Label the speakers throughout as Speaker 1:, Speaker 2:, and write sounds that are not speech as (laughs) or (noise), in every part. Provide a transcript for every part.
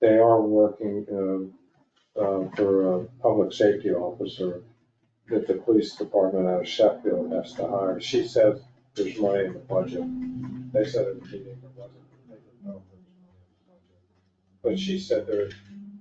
Speaker 1: they are working, um, uh, for a public safety officer that the police department out of Sheffield has to hire. She says there's money in the budget. They said it was meeting, there wasn't. They didn't know if there was money in the budget. But she said there,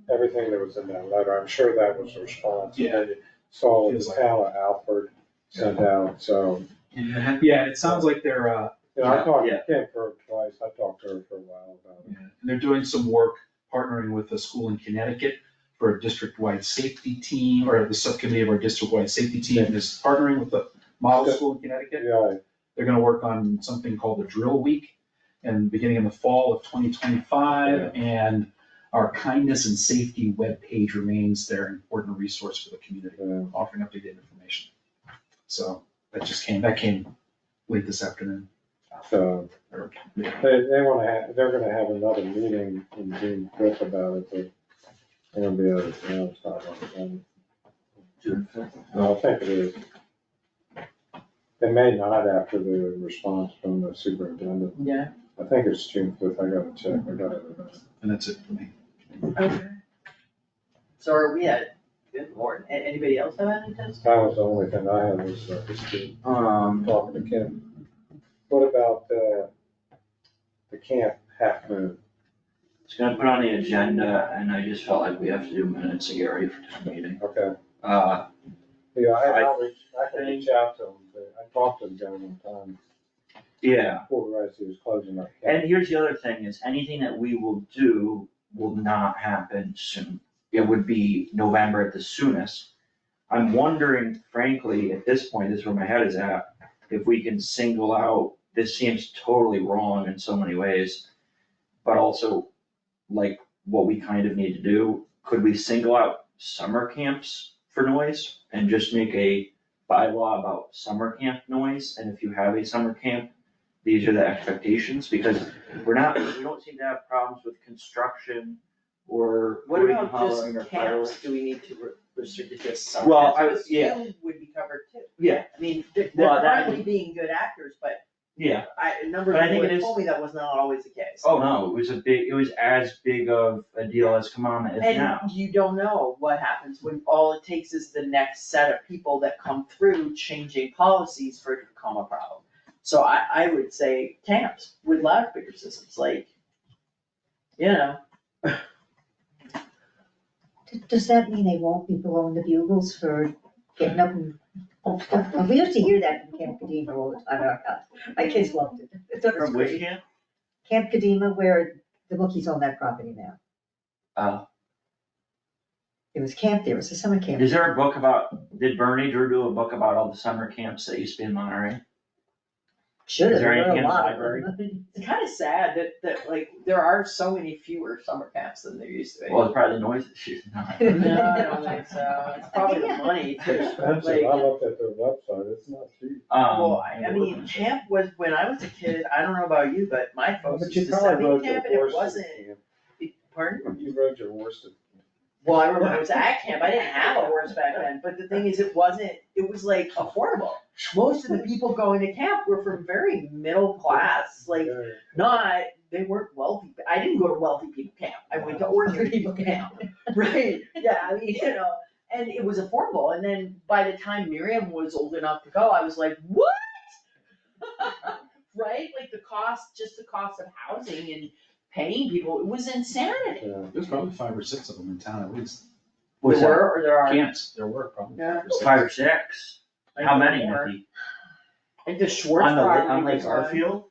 Speaker 1: everything that was in that letter, I'm sure that was a response.
Speaker 2: Yeah.
Speaker 1: And Saul and Al Alford sent out, so,
Speaker 2: Yeah, it sounds like they're, uh,
Speaker 1: you know, I talked,
Speaker 3: Yeah.
Speaker 1: I came for her twice, I talked to her for a while about it.
Speaker 2: and they're doing some work partnering with a school in Connecticut for a district-wide safety team, or the subcommittee of our district-wide safety team is partnering with the model school in Connecticut.
Speaker 1: Yeah,
Speaker 2: They're gonna work on something called the drill week and beginning in the fall of twenty twenty-five. And our kindness and safety webpage remains their important resource for the community,
Speaker 1: yeah.
Speaker 2: offering updated information. So that just came, that came late this afternoon.
Speaker 1: So,
Speaker 2: or-
Speaker 1: they, they wanna have, they're gonna have another meeting in June fifth about it, but it'll be out of town, it's not on the agenda. No, I think it is. It may not after the response from the superintendent.
Speaker 3: Yeah.
Speaker 1: I think it's June fifth, I gotta check, I gotta.
Speaker 2: And that's it for me.
Speaker 3: Okay. So are we at, good lord, a- anybody else have any tests?
Speaker 1: That was the only thing I had was, uh, just to
Speaker 4: Um,
Speaker 1: talk to Kim. What about, uh, the camp half moon?
Speaker 4: it's gonna put on the agenda, and I just felt like we have to do minutes of Gary for town meeting.
Speaker 1: Okay.
Speaker 4: Uh,
Speaker 1: Yeah, I,
Speaker 4: I
Speaker 1: I'll reach, I can reach out to him, but I talked to him down in time.
Speaker 4: yeah,
Speaker 1: Before we realized he was closing up.
Speaker 4: and here's the other thing, is anything that we will do will not happen soon. It would be November at the soonest. I'm wondering frankly, at this point, this is where my head is at, if we can single out, this seems totally wrong in so many ways, but also like what we kind of need to do, could we single out summer camps for noise and just make a bylaw about summer camp noise? And if you have a summer camp, these are the expectations, because we're not, we don't seem to have problems with construction or
Speaker 3: What
Speaker 4: hooting and
Speaker 3: about
Speaker 4: hollering or
Speaker 3: just camps,
Speaker 4: fireworks.
Speaker 3: do we need to re- restrict it to some?
Speaker 4: Well, I was-
Speaker 3: Because
Speaker 4: yeah.
Speaker 3: Film would be covered too.
Speaker 4: Yeah.
Speaker 3: I mean, they're they're
Speaker 4: Well, that-
Speaker 3: probably being good actors, but
Speaker 4: Yeah,
Speaker 3: I, a number
Speaker 4: But
Speaker 3: of
Speaker 4: I think
Speaker 3: people
Speaker 4: it
Speaker 3: have
Speaker 4: is-
Speaker 3: told me that was not always the case.
Speaker 4: Oh, no, it was a big, it was as big of a deal as Kamama is now.
Speaker 3: And you don't know what happens when all it takes is the next set of people that come through changing policies for it to become a problem. So I, I would say camps with loudspeaker systems, like, you know,
Speaker 5: D- Does that mean they won't be blowing the bugles for getting up and, oh, stuff? we used to hear that in Camp Kadima all the time, our house. my kids loved it. They thought it was
Speaker 4: From which
Speaker 5: great.
Speaker 4: camp?
Speaker 5: Camp Kadima where the bookies own that property now.
Speaker 4: Oh.
Speaker 5: It was camp there, it was a summer camp.
Speaker 4: Is there a book about, did Bernie Drew do a book about all the summer camps that used to be in Monterey?
Speaker 5: Should
Speaker 4: is
Speaker 5: have,
Speaker 4: there
Speaker 5: there were
Speaker 4: anything
Speaker 5: a
Speaker 4: in the
Speaker 5: lot of them.
Speaker 3: it's kinda sad that, that like, there are so many fewer summer camps than there used to be.
Speaker 4: Well, it's probably the noise that she's not.
Speaker 3: No,
Speaker 2: (laughs)
Speaker 3: I don't think so, it's probably the
Speaker 1: (laughs)
Speaker 3: money
Speaker 1: It's
Speaker 3: too.
Speaker 1: expensive, I looked at their website, it's not cheap.
Speaker 4: Um,
Speaker 3: Well, I,
Speaker 1: (laughs)
Speaker 3: I mean, camp was, when I was a kid, I don't know about you, but my folks
Speaker 1: But
Speaker 3: used
Speaker 1: you
Speaker 3: to
Speaker 1: probably
Speaker 3: send me
Speaker 1: rode your
Speaker 3: camp and it
Speaker 1: Worsted
Speaker 3: wasn't, pardon?
Speaker 1: camp. You rode your Worsted.
Speaker 3: Well, I remember it was at camp, I didn't have a horse back then, but the thing is, it wasn't, it was like affordable. Most of the people going to camp were from very middle class, like
Speaker 1: Yeah.
Speaker 3: not, they weren't wealthy, I didn't go to wealthy people camp, I went to ordinary people camp. Right, yeah, I mean, you know, and it was affordable, and then by the time Miriam was old enough to go, I was like, what? (laughs) Right, like the cost, just the cost of housing and paying people, it was insanity.
Speaker 1: Yeah.
Speaker 2: There's probably five or six of them in town at least.
Speaker 4: was
Speaker 3: There
Speaker 4: that
Speaker 3: were or there are?
Speaker 2: Camps, there were probably.
Speaker 3: Yeah.
Speaker 2: five or six.
Speaker 4: five or six? How many,
Speaker 3: More.
Speaker 4: Nikki?
Speaker 3: And the Schwartz
Speaker 4: On the,
Speaker 3: property
Speaker 4: on Lake
Speaker 3: was on-
Speaker 4: Garfield?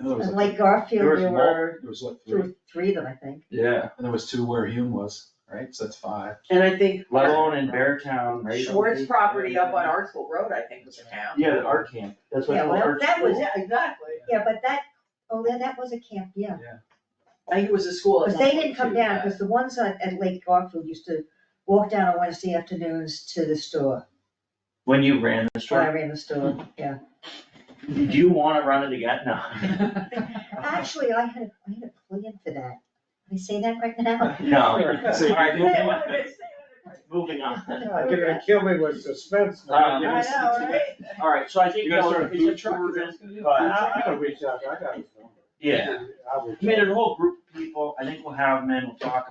Speaker 2: I know there was
Speaker 5: And
Speaker 2: like-
Speaker 5: like Garfield,
Speaker 4: there was
Speaker 5: there
Speaker 4: mul-
Speaker 5: were
Speaker 2: There was what,
Speaker 5: two,
Speaker 2: three?
Speaker 5: or three of them, I think.
Speaker 4: Yeah,
Speaker 2: And there was two where Hume was, right? So that's five.
Speaker 3: And I think
Speaker 4: let alone in Beartown, right?
Speaker 3: Schwartz property up on Artsville Road, I think was a camp.
Speaker 4: Yeah, the art camp, that's what.
Speaker 5: Yeah, well,
Speaker 4: art
Speaker 3: That was,
Speaker 4: school.
Speaker 3: yeah, exactly.
Speaker 5: Yeah, but that, oh, yeah, that was a camp, yeah.
Speaker 3: I think it was a school. at
Speaker 5: Because
Speaker 3: some
Speaker 5: they
Speaker 3: point,
Speaker 5: didn't come
Speaker 3: too,
Speaker 5: down,
Speaker 3: but-
Speaker 5: because the ones at, at Lake Garfield used to walk down on Wednesday afternoons to the store,
Speaker 4: When you ran the
Speaker 5: when I
Speaker 4: store,
Speaker 5: ran the store, yeah.
Speaker 4: do you wanna run it again? (laughs) No.
Speaker 5: Actually, I had, I had a plan for that. Can I say that right now?
Speaker 4: No.
Speaker 1: So-
Speaker 4: All right, moving
Speaker 3: Yeah,
Speaker 4: on.
Speaker 3: well, it's-
Speaker 4: Moving on.
Speaker 1: God, You're gonna kill me with suspense now.
Speaker 4: Um,
Speaker 3: I know, right?
Speaker 4: All right, so I think.
Speaker 2: You guys
Speaker 4: no,
Speaker 2: started
Speaker 4: it's a
Speaker 2: food truck?
Speaker 4: tour-
Speaker 1: I,
Speaker 4: but-
Speaker 1: I gotta reach out, I got his number.
Speaker 4: Yeah.
Speaker 1: I'll reach
Speaker 4: I mean,
Speaker 1: out.
Speaker 4: there's a whole group of people, I think we'll have them in, we'll talk